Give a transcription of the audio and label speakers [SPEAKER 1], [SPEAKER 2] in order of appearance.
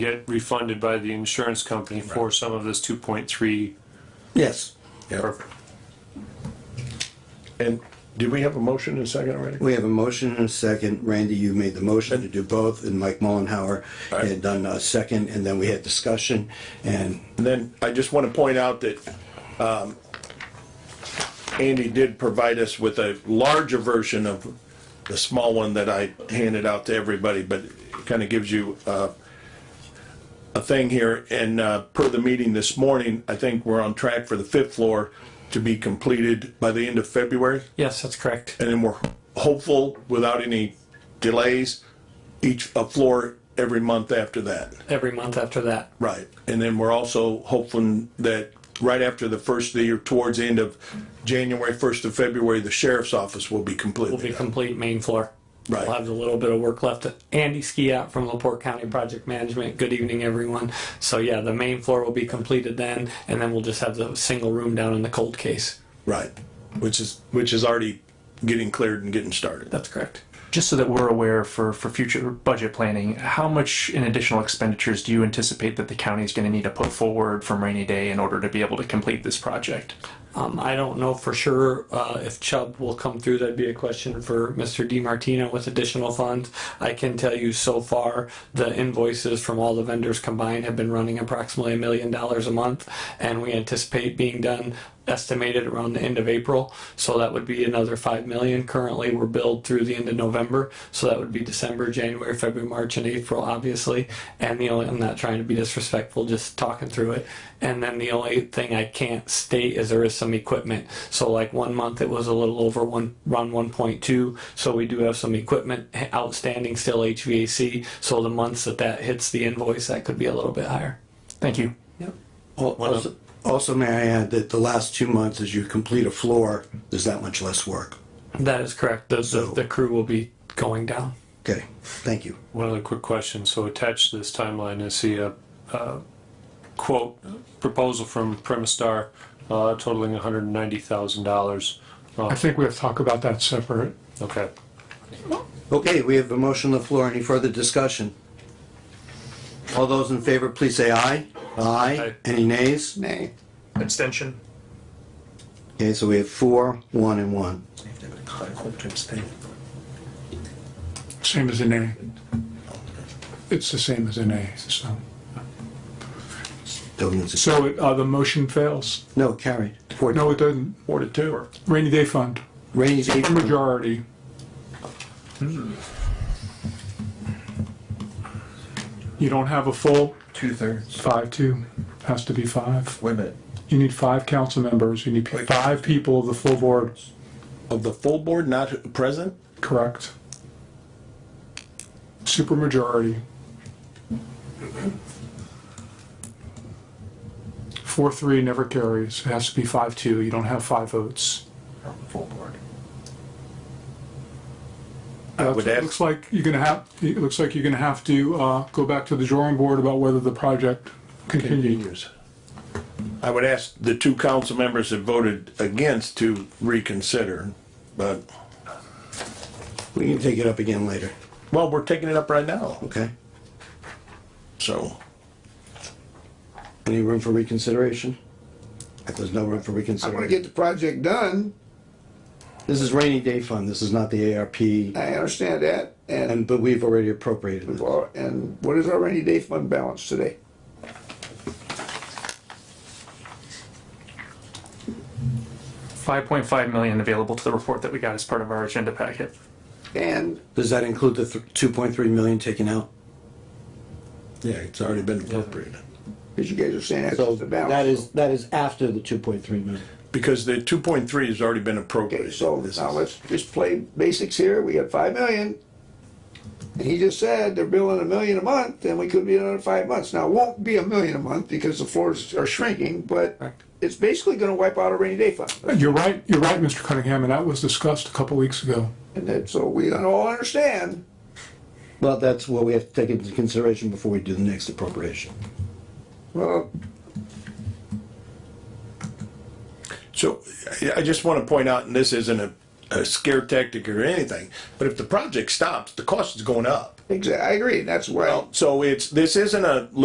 [SPEAKER 1] get refunded by the insurance company for some of this two point three.
[SPEAKER 2] Yes,
[SPEAKER 3] And did we have a motion in a second already?
[SPEAKER 2] we have a motion and a second. Randy, you made the motion to do both, and Mike Mullenhour had done a second, and then we had discussion, and
[SPEAKER 3] And then I just want to point out that um, Andy did provide us with a larger version of the small one that I handed out to everybody, but it kind of gives you uh, a thing here. And uh, per the meeting this morning, I think we're on track for the fifth floor to be completed by the end of February.
[SPEAKER 4] Yes, that's correct.
[SPEAKER 3] and then we're hopeful without any delays, each, a floor every month after that.
[SPEAKER 4] Every month after that.
[SPEAKER 3] Right. And then we're also hoping that right after the first of the year, towards the end of January, first of February, the sheriff's office will be completely.
[SPEAKER 4] Will be
[SPEAKER 3] done.
[SPEAKER 4] complete main floor.
[SPEAKER 3] Right.
[SPEAKER 4] We'll have a little bit of work left. Andy Skiat from Laporte County Project Management. Good evening, everyone. So yeah, the main floor will be completed then, and then we'll just have the single room down in the cold case.
[SPEAKER 3] Right. Which is, which is already getting cleared and getting started.
[SPEAKER 4] That's correct.
[SPEAKER 5] Just so that we're aware for, for future budget planning, how much in additional expenditures do you anticipate that the county is going to need to put forward from rainy day in order to be able to complete this project?
[SPEAKER 4] Um, I don't know for sure uh, if Chubb will come through. That'd be a question for Mr. DiMartino with additional funds. I can tell you so far, the invoices from all the vendors combined have been running approximately a million dollars a month, and we anticipate being done estimated around the end of April. So that would be another five million. Currently, we're billed through the end of November, so that would be December, January, February, March, and April, obviously. And the only, I'm not trying to be disrespectful, just talking through it. And then the only thing I can't state is there is some equipment. So like one month it was a little over one, around one point two. So we do have some equipment outstanding still HVAC. So the months that that hits the invoice, that could be a little bit higher.
[SPEAKER 5] Thank you.
[SPEAKER 4] Yep.
[SPEAKER 2] al- also, also may I add that the last two months, as you complete a floor, there's that much less work.
[SPEAKER 4] That is correct. The, the, the crew will be going down.
[SPEAKER 2] Okay, thank you.
[SPEAKER 1] One other quick question, so attached to this timeline is the, uh, uh, quote, proposal from Primastar uh, totaling hundred and ninety thousand dollars. Oh,
[SPEAKER 6] I think we have to talk about that separate.
[SPEAKER 1] Okay,
[SPEAKER 2] Okay, we have a motion on the floor. Any further discussion? All those in favor, please say aye. Aye.
[SPEAKER 1] Aye.
[SPEAKER 2] Any nays?
[SPEAKER 4] Nay.
[SPEAKER 5] Abstention.
[SPEAKER 2] Okay, so we have four, one, and one.
[SPEAKER 6] Same as an A. It's the same as an A, so.
[SPEAKER 2] Don't use it.
[SPEAKER 6] So it- uh, the motion fails.
[SPEAKER 2] No, carried. Four-
[SPEAKER 6] No, it doesn't.
[SPEAKER 3] Four to two.
[SPEAKER 6] Rainy day fund,
[SPEAKER 2] Rainy day.
[SPEAKER 6] Super majority. Hmm. You don't have a full
[SPEAKER 7] Two-thirds.
[SPEAKER 6] five, two. Has to be five.
[SPEAKER 7] Wait a minute.
[SPEAKER 6] You need five council members. You need five people of the full board,
[SPEAKER 3] Of the full board not present?
[SPEAKER 6] correct? Super majority. Four, three never carries. It has to be five, two. You don't have five votes.
[SPEAKER 7] Full board.
[SPEAKER 3] I would
[SPEAKER 6] Uh, It
[SPEAKER 3] add,
[SPEAKER 6] looks like you're gonna have, it looks like you're gonna have to, uh, go back to the drawing board about whether the project continues.
[SPEAKER 3] I would ask the two council members that voted against to reconsider, but,
[SPEAKER 2] We can take it up again later,
[SPEAKER 3] well, we're taking it up right now,
[SPEAKER 2] okay?
[SPEAKER 3] so.
[SPEAKER 2] Any room for reconsideration? If there's no room for
[SPEAKER 8] I want to
[SPEAKER 2] reconsideration.
[SPEAKER 8] get the project done.
[SPEAKER 2] This is rainy day fund. This is not the ARP.
[SPEAKER 8] I understand that. And,
[SPEAKER 2] And, but we've already appropriated it.
[SPEAKER 8] and what is our rainy day fund balance today?
[SPEAKER 5] Five point five million available to the report that we got as part of our agenda packet.
[SPEAKER 8] And
[SPEAKER 2] Does that include the th- 2.3 million taken out?
[SPEAKER 3] Yeah, it's already been appropriated.
[SPEAKER 8] because you guys are saying that's
[SPEAKER 2] So
[SPEAKER 8] just the
[SPEAKER 2] that
[SPEAKER 8] balance.
[SPEAKER 2] is, that is after the 2.3 million.
[SPEAKER 3] Because the two point three has already been
[SPEAKER 8] Okay,
[SPEAKER 3] appropriated.
[SPEAKER 8] so
[SPEAKER 3] This
[SPEAKER 8] now
[SPEAKER 3] is-
[SPEAKER 8] let's just play basics here. We got five million. And he just said they're billing a million a month and we could be another five months. Now, it won't be a million a month because the floors are shrinking, but it's basically going to wipe out our rainy day fund.
[SPEAKER 6] You're right, you're right, Mr. Cunningham, and that was discussed a couple weeks ago.
[SPEAKER 8] And that, so we all understand.
[SPEAKER 2] Well, that's what we have to take into consideration before we do the next appropriation.
[SPEAKER 8] Well,
[SPEAKER 3] So I- I just want to point out, and this isn't a, a scare tactic or anything, but if the project stops, the cost is going up.
[SPEAKER 8] Exactly, I agree, that's why.
[SPEAKER 3] So it's, this isn't a